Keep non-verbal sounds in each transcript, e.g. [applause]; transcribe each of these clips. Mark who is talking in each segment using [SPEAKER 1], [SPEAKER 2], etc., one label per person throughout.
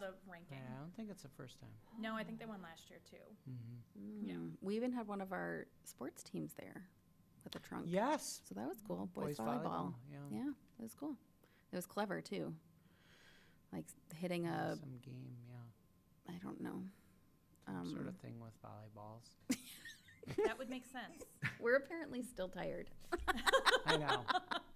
[SPEAKER 1] the ranking.
[SPEAKER 2] Yeah, I don't think it's the first time.
[SPEAKER 1] No, I think they won last year too.
[SPEAKER 2] Mhm.
[SPEAKER 1] Yeah.
[SPEAKER 3] Mm. We even had one of our sports teams there with a trunk.
[SPEAKER 2] Yes.
[SPEAKER 3] So that was cool. Boys, volleyball.
[SPEAKER 2] Yeah.
[SPEAKER 3] Yeah, it was cool. It was clever too. Like s- hitting a,
[SPEAKER 2] Some game, yeah.
[SPEAKER 3] I don't know. Um,
[SPEAKER 2] Sort of [laughs] thing with
[SPEAKER 3] [laughs]
[SPEAKER 2] volleyballs.
[SPEAKER 1] That would make sense.
[SPEAKER 3] We're apparently still tired.
[SPEAKER 2] I know.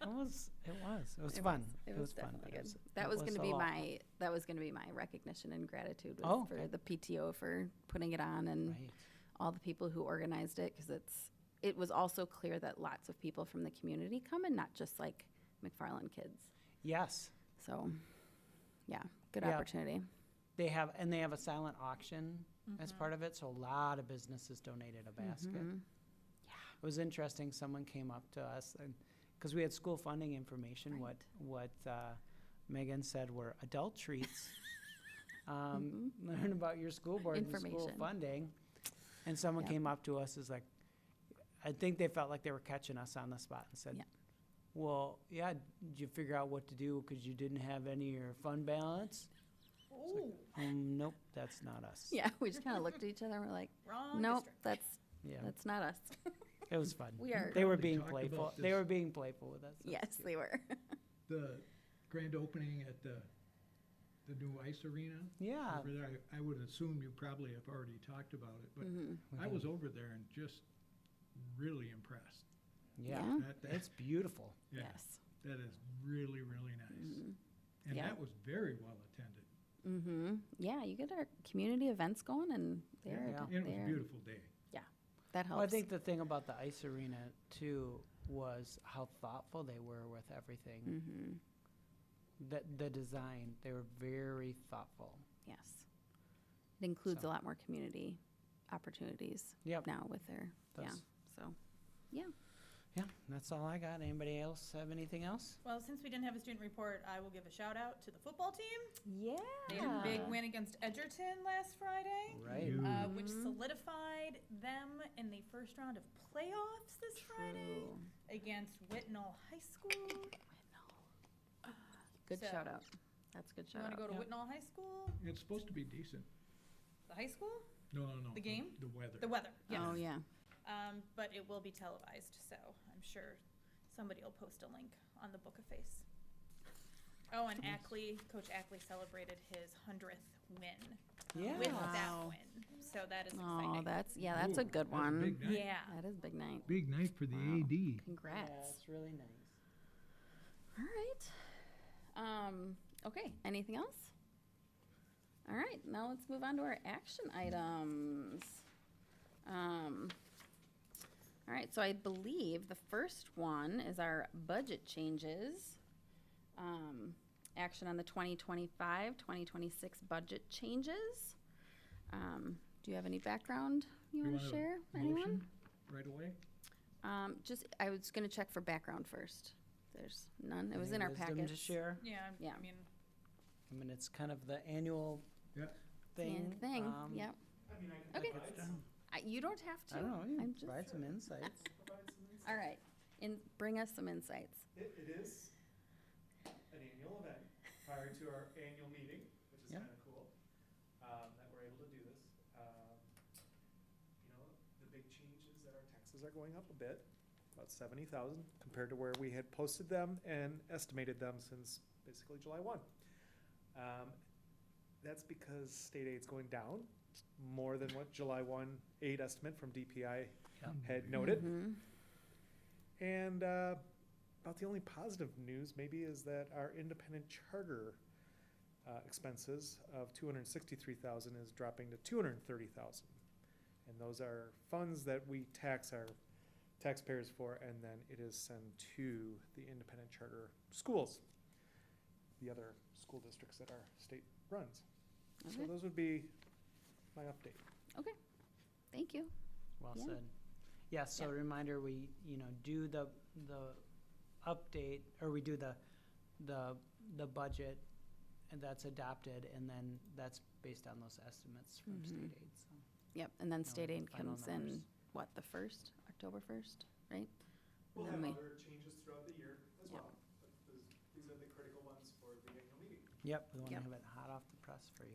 [SPEAKER 2] It was, it was, it was fun. It was fun.
[SPEAKER 3] definitely
[SPEAKER 2] but it
[SPEAKER 3] good.
[SPEAKER 2] was- it
[SPEAKER 3] that was going
[SPEAKER 2] a
[SPEAKER 3] to be
[SPEAKER 2] lot.
[SPEAKER 3] my that was going to be my recognition and gratitude was
[SPEAKER 2] Oh,
[SPEAKER 3] for
[SPEAKER 2] okay.
[SPEAKER 3] the PTO for putting it on and
[SPEAKER 2] Right.
[SPEAKER 3] all the people who organized it because it's it was also clear that lots of people from the community come and not just like McFarland kids.
[SPEAKER 2] Yes,
[SPEAKER 3] So, yeah, good
[SPEAKER 2] Yeah.
[SPEAKER 3] opportunity.
[SPEAKER 2] they have, and they have a silent auction
[SPEAKER 3] Mm-hmm.
[SPEAKER 2] as part of it, so a lot of businesses donated a basket. Yeah, It was interesting, someone came up to us and, because we had school funding information, what, what uh, Megan said were adult
[SPEAKER 3] [laughs]
[SPEAKER 2] treats. Um, Learn about your school board and school
[SPEAKER 3] Mm-hmm. Information.
[SPEAKER 2] funding. And someone
[SPEAKER 3] Yep.
[SPEAKER 2] came up to us, is like, I think they felt like they were catching us on the spot and said,
[SPEAKER 3] Yeah.
[SPEAKER 2] Well, yeah, did you figure out what to do because you didn't have any of your fund balance?
[SPEAKER 1] Ooh,
[SPEAKER 2] Um, nope, that's not us.
[SPEAKER 3] [laughs] Yeah, we just kind of looked at each other and we're like,
[SPEAKER 1] wrong
[SPEAKER 3] nope,
[SPEAKER 1] district.
[SPEAKER 3] that's
[SPEAKER 2] Yeah,
[SPEAKER 3] that's not us.
[SPEAKER 1] [laughs]
[SPEAKER 2] it was fun.
[SPEAKER 3] We are-
[SPEAKER 2] They were
[SPEAKER 4] They
[SPEAKER 2] being
[SPEAKER 4] talked about
[SPEAKER 2] playful. They
[SPEAKER 4] this.
[SPEAKER 2] were being playful with us. [laughs]
[SPEAKER 3] yes, they were.
[SPEAKER 4] the grand opening at the, the new ice arena.
[SPEAKER 3] Ah.
[SPEAKER 2] Yeah.
[SPEAKER 4] Over there, I, I would assume you probably have already talked about it, but
[SPEAKER 3] Mm-hmm.
[SPEAKER 4] I was over there and just really impressed.
[SPEAKER 2] Yeah.
[SPEAKER 4] That- that-
[SPEAKER 2] It's beautiful.
[SPEAKER 4] yeah,
[SPEAKER 3] Mm-hmm. Yes. Mm-hmm.
[SPEAKER 4] That is really, really nice. And
[SPEAKER 3] Yeah.
[SPEAKER 4] that was very well attended.
[SPEAKER 3] Mm-hmm. Yeah, you get our community events going, and they're
[SPEAKER 2] Yeah.
[SPEAKER 4] And it was a
[SPEAKER 3] they're-
[SPEAKER 4] beautiful day.
[SPEAKER 3] Yeah, that helps.
[SPEAKER 2] Well, I think the thing about the ice arena too was how thoughtful they were with
[SPEAKER 3] Mm.
[SPEAKER 2] everything.
[SPEAKER 3] Mm-hmm.
[SPEAKER 2] The, the design, they were very thoughtful.
[SPEAKER 3] yes, it includes
[SPEAKER 2] So.
[SPEAKER 3] a lot more community opportunities.
[SPEAKER 2] Yep.
[SPEAKER 3] Now with their
[SPEAKER 2] That's-
[SPEAKER 3] yeah, so yeah,
[SPEAKER 2] Yeah, that's all I got. Anybody else have anything else?
[SPEAKER 1] Well, since we didn't have a student report, I will give a shout out to the football team.
[SPEAKER 3] yeah.
[SPEAKER 1] They had a big win against Edgerton last Friday,
[SPEAKER 2] Right.
[SPEAKER 4] You-
[SPEAKER 1] uh, which solidified them in the first round of playoffs this Friday against Whitnall High School.
[SPEAKER 3] Good
[SPEAKER 1] So-
[SPEAKER 3] shout out. That's a good
[SPEAKER 1] You
[SPEAKER 3] shout
[SPEAKER 1] want to
[SPEAKER 3] out.
[SPEAKER 1] go to
[SPEAKER 2] Yeah.
[SPEAKER 1] Whitnall High School?
[SPEAKER 4] It's supposed to be decent.
[SPEAKER 1] The high school?
[SPEAKER 4] No, no, no.
[SPEAKER 1] The game?
[SPEAKER 4] The weather.
[SPEAKER 1] The weather. Yes.
[SPEAKER 3] Oh yeah.
[SPEAKER 1] Um, but it will be televised, so I'm sure somebody will post a link on the Book of Face. Oh, and Ackley, Coach Ackley celebrated his hundredth win with
[SPEAKER 2] Yeah.
[SPEAKER 1] that
[SPEAKER 3] Wow.
[SPEAKER 1] win, so that is exciting.
[SPEAKER 3] Oh, that's yeah, that's
[SPEAKER 4] Ooh,
[SPEAKER 3] a good
[SPEAKER 4] that's
[SPEAKER 3] one.
[SPEAKER 4] big night.
[SPEAKER 1] yeah.
[SPEAKER 3] That is big night.
[SPEAKER 4] Big night for the
[SPEAKER 3] Wow.
[SPEAKER 4] AD.
[SPEAKER 3] Congrats.
[SPEAKER 2] Yeah, it's really nice.
[SPEAKER 3] All right. Um, okay, anything else? All right, now let's move on to our action items. Um, all right, so I believe the first one is our budget changes. Um, action on the 2025 2026 budget changes. Um, do you have any background you, want to
[SPEAKER 4] want a
[SPEAKER 3] share? Anyone?
[SPEAKER 4] Motion right away?
[SPEAKER 3] Um, just, I was going to check for background first. There's none. It was
[SPEAKER 2] Any
[SPEAKER 3] in our
[SPEAKER 2] wisdom
[SPEAKER 3] package.
[SPEAKER 2] to share?
[SPEAKER 1] Yeah,
[SPEAKER 3] Yeah.
[SPEAKER 1] I mean,
[SPEAKER 2] I mean, it's kind of the annual
[SPEAKER 4] Yeah.
[SPEAKER 2] thing.
[SPEAKER 3] Thing,
[SPEAKER 2] um,
[SPEAKER 3] yep. Okay. I- You don't have to.
[SPEAKER 2] I don't know, you
[SPEAKER 3] I'm
[SPEAKER 2] can
[SPEAKER 3] just-
[SPEAKER 2] provide some insights.
[SPEAKER 3] All right, and bring us some insights.
[SPEAKER 5] It, it is an annual event prior to our annual meeting, which is
[SPEAKER 2] Yeah.
[SPEAKER 5] kind of cool, um, that we're able to do this. Um, You know, the big change is that our taxes are going up a bit, about seventy thousand compared to where we had posted them and estimated them since basically July one. Um, That's because state aid's going down more than what July one aid estimate from DPI
[SPEAKER 2] Yeah.
[SPEAKER 5] had noted.
[SPEAKER 3] Mhm.
[SPEAKER 5] And uh, about the only positive news maybe is that our independent charter uh, expenses of two hundred sixty-three thousand is dropping to two hundred thirty thousand. And those are funds that we tax our taxpayers for, and then it is sent to the independent charter schools, the other school districts that our state runs. So
[SPEAKER 3] Okay.
[SPEAKER 5] those would be my update.
[SPEAKER 3] Okay, thank you.
[SPEAKER 2] Well
[SPEAKER 3] Yeah.
[SPEAKER 2] said. Yeah, so
[SPEAKER 3] Yeah.
[SPEAKER 2] reminder, we, you know, do the, the update, or we do the, the, the budget and that's adopted, and then that's based on those estimates from state aid, so.
[SPEAKER 3] Yep, Mm-hmm. and then state
[SPEAKER 2] the
[SPEAKER 3] aid
[SPEAKER 2] final
[SPEAKER 3] comes in,
[SPEAKER 2] numbers.
[SPEAKER 3] what, the first, October first, right?
[SPEAKER 5] We'll
[SPEAKER 3] Then
[SPEAKER 5] have
[SPEAKER 3] we-
[SPEAKER 5] other changes throughout the year as
[SPEAKER 3] Yep.
[SPEAKER 5] well, but those, these are the critical ones for the annual meeting.
[SPEAKER 2] Yep, we wanna
[SPEAKER 3] Yep.
[SPEAKER 2] have it hot off the press for you.